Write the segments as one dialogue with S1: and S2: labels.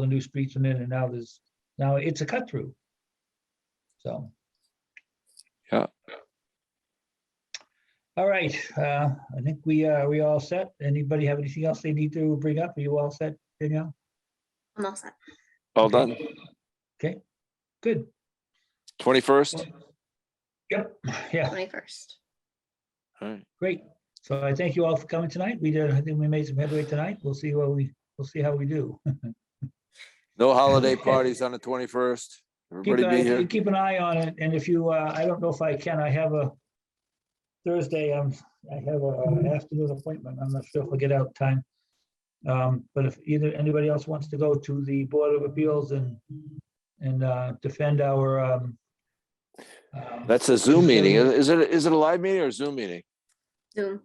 S1: the new streets went in and now there's, now it's a cut through. So.
S2: Yeah.
S1: All right, uh, I think we, uh, we all set. Anybody have anything else they need to bring up? Are you all set, Danielle?
S3: I'm all set.
S2: All done.
S1: Good.
S2: Twenty-first.
S1: Yep, yeah,
S3: Twenty-first.
S2: All right.
S1: great. So I thank you all for coming tonight. We did, I think we made some headway tonight. We'll see what we, we'll see how we do.
S2: No holiday
S1: Okay.
S2: parties on the twenty-first.
S1: Keep
S2: Everybody
S1: an
S2: be
S1: eye,
S2: here.
S1: keep an eye on it, and if you, uh, I don't know if I can, I have a Thursday, um, I have a afternoon appointment, I'm not sure if I'll get out in time. Um, but if either, anybody else wants to go to the Board of Appeals and, and, uh, defend our, um, um,
S2: That's a Zoom meeting. Is it, is it a live meeting or a Zoom meeting?
S3: Zoom.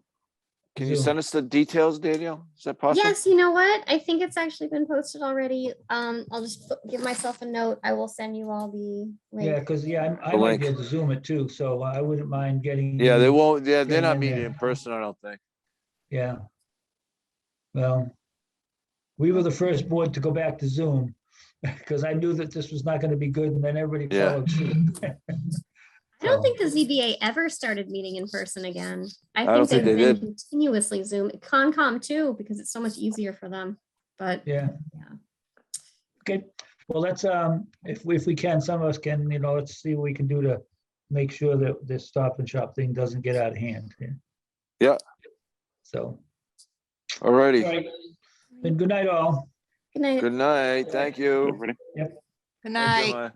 S2: Can you
S1: Zoom.
S2: send us the details, Danielle? Is that possible?
S3: Yes, you know what? I think it's actually been posted already. Um, I'll just put- give myself a note. I will send you all the
S1: Yeah,
S3: link.
S1: because, yeah, I I
S2: The
S1: might
S2: link.
S1: be able to Zoom it too, so I wouldn't mind getting.
S2: Yeah, they won't, yeah,
S1: Yeah,
S2: they're not
S1: yeah,
S2: meeting
S1: yeah.
S2: in person, I don't think.
S1: Yeah. Well, we were the first board to go back to Zoom because I knew that this was not going to be good and then everybody
S2: Yeah.
S1: followed suit.
S3: I don't think the ZBA ever started meeting in person again. I
S2: don't think
S3: think they've
S2: they
S3: been
S2: did.
S3: continuously Zoom, Concom too, because it's so much easier for them. But
S1: Yeah.
S3: Yeah.
S1: Okay, well, let's, um, if, we- if we can, some of us can, you know, let's see what we can do to make sure that this stop and shop thing doesn't get out of hand. yeah.
S2: Yeah.
S1: So, all
S2: Alrighty,
S1: right, then good night all.
S3: good night.
S2: good night, thank you.
S4: Good
S2: Thank you,
S4: night.
S2: Ma.